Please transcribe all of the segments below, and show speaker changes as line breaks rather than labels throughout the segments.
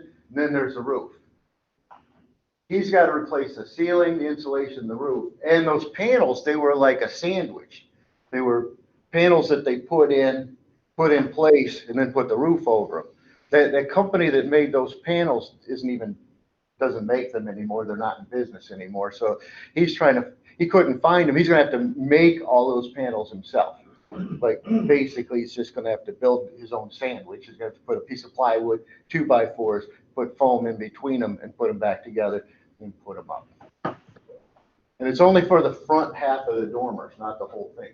And then there's the roof. He's got to replace the ceiling, the insulation, the roof, and those panels, they were like a sandwich. They were panels that they put in, put in place, and then put the roof over them. That, that company that made those panels isn't even, doesn't make them anymore, they're not in business anymore, so he's trying to, he couldn't find them, he's gonna have to make all those panels himself. Like, basically, he's just gonna have to build his own sandwich, he's gonna have to put a piece of plywood, two by fours, put foam in between them and put them back together and put them up. And it's only for the front half of the dormers, not the whole thing.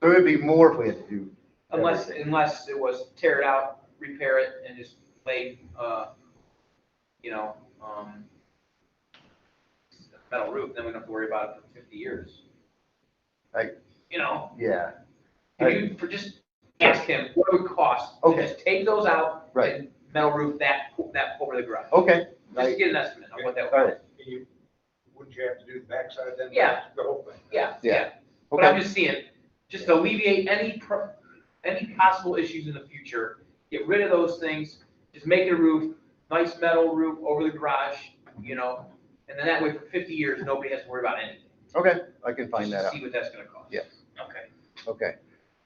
There would be more if we had to do.
Unless,
everything.
unless it was tear it out, repair it, and just lay, uh, you know, um, metal roof, then we don't have to worry about it for fifty years.
Like-
You know,
Yeah,
can you, for just, ask him, what would it cost? to
Okay.
Just take those out.
Right.
And metal roof that, that over the garage.
okay.
Just to
I-
get an estimate on what that
All
would,
right,
And you, wouldn't you have to do the backside then?
Yeah.
The whole thing?
yeah,
Yeah.
yeah. But I'm
Okay,
just saying, just to alleviate any, pro- any possible issues in the future, get rid of those things, just make the roof, nice metal roof over the garage, you know? And then that way for fifty years, nobody has to worry about anything.
okay, I can find that
Just
out,
to See what that's gonna cost.
Yeah.
Okay.
okay.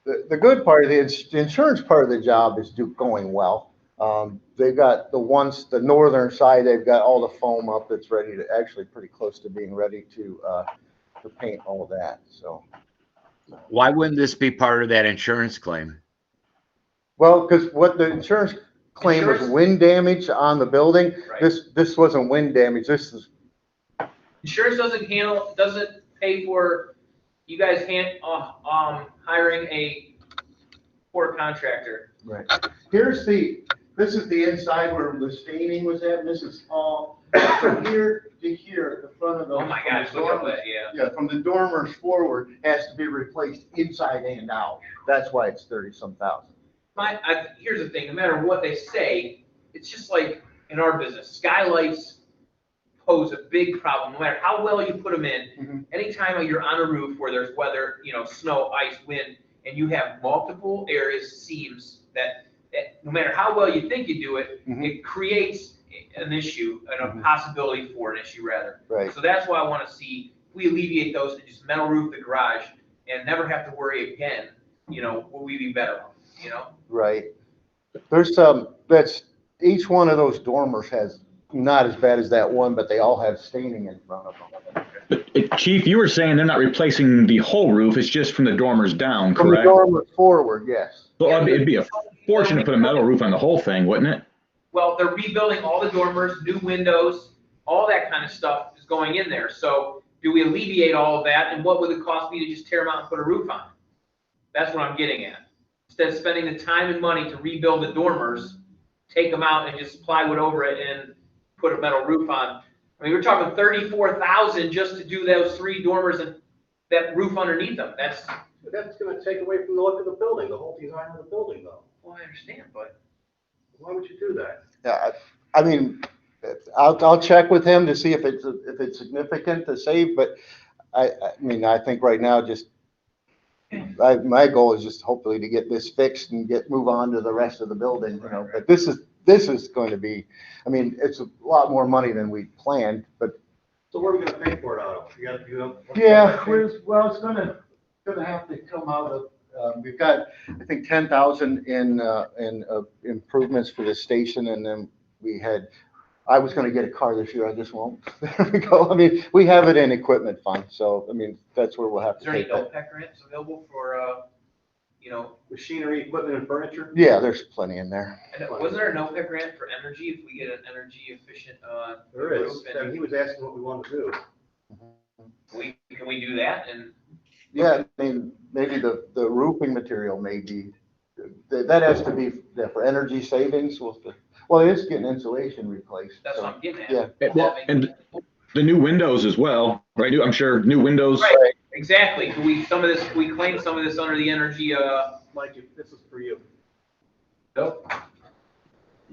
The, the good part of the, ins- the insurance part of the job is do, going well. Um, they've got the ones, the northern side, they've got all the foam up, it's ready to, actually pretty close to being ready to, uh, to paint all of that, so.
Why wouldn't this be part of that insurance claim?
Well, because what the insurance claim was
Insurance-
wind damage on the building.
Right.
This, this wasn't wind damage, this is,
Insurance doesn't handle, doesn't pay for, you guys hand, uh, um, hiring a poor contractor.
here's the, this is the inside where the staining was at, and this is all, from here to here, the front of the.
Oh my gosh, look at that, yeah.
Yeah, from the dormers forward has to be replaced inside and out. That's why it's thirty-some thousand.
My, I, here's the thing, no matter what they say, it's just like in our business, skylights pose a big problem, no matter how well you put them
Mhm.
in. Anytime you're on a roof where there's weather, you know, snow, ice, wind, and you have multiple areas, seams, that, that, no matter how well you think you do it,
Mhm.
it creates an issue, and a
Mhm.
possibility for an issue rather.
Right,
So that's why I wanna see, if we alleviate those, and just metal roof the garage, and never have to worry again, you know, will we be better, off, you know?
right. There's some, that's, each one of those dormers has, not as bad as that one, but they all have staining in front of them.
But, uh, Chief, you were saying they're not replacing the whole roof, it's just from the dormers down,
From the
correct?
dormer forward, yes.
So it'd be- it'd be a fortune to put a metal roof on the whole thing, wouldn't it?
Well, they're rebuilding all the dormers, new windows, all that kind of stuff is going in there. So do we alleviate all of that and what would it cost me to just tear them out and put a roof on? it? That's what I'm getting at. Instead of spending the time and money to rebuild the dormers, take them out and just plywood over it and put a metal roof on. I mean, we're talking thirty-four thousand just to do those three dormers and that roof underneath them. That's,
But that's gonna take away from the look of the building, the whole design of the building though.
well, I understand, but
Why would you do that?
Yeah, I I mean, I'll, I'll check with him to see if it's, if it's significant to save, but I, I mean, I think right now just, I, my goal is just hopefully to get this fixed and get, move on to the rest of the building, you know, but this is, this is going to be, I mean, it's a lot more money than we planned, but
So where are we gonna pay for it out of? You got, you don't.
yeah, where's, well, it's gonna, gonna have to come out of, um, we've got, I think, ten thousand in, uh, in uh, improvements for the station, and then we had, I was gonna get a car this year, I just won't. There we go, I mean, we have it in equipment fund, so, I mean, that's where we'll have
is
to
there any
take that.
OPEC grants available for, uh, you know,
Machinery, equipment and furniture?
Yeah, there's plenty in there.
And it- Wasn't there an OPEB grant for energy if we get an energy efficient, uh,
There is. I mean, he was asking what we want to do.
we, can we do that and?
Yeah, I mean, maybe the, the roofing material may be, that, that has to be yeah, for energy savings, well, the- well, it is getting insulation replaced.
That's
so-
what I'm getting at.
Yeah.
It- well, And the new windows as well, right? I'm sure new windows.
Right. Exactly, do we, some of this, we claim some of this under the energy, uh,
Mike, if- this is for you.
nope,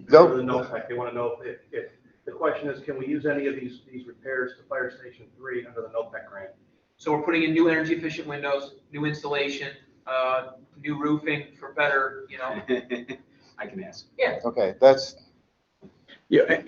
Nope.
For The NOPEC, they want to know if, if, the question is, can we use any of these, these repairs to Fire Station Three under the NOPEC grant?
so we're putting in new energy efficient windows, new insulation, uh, new roofing for better, you know,
I can ask.
Okay, that's,
Yeah,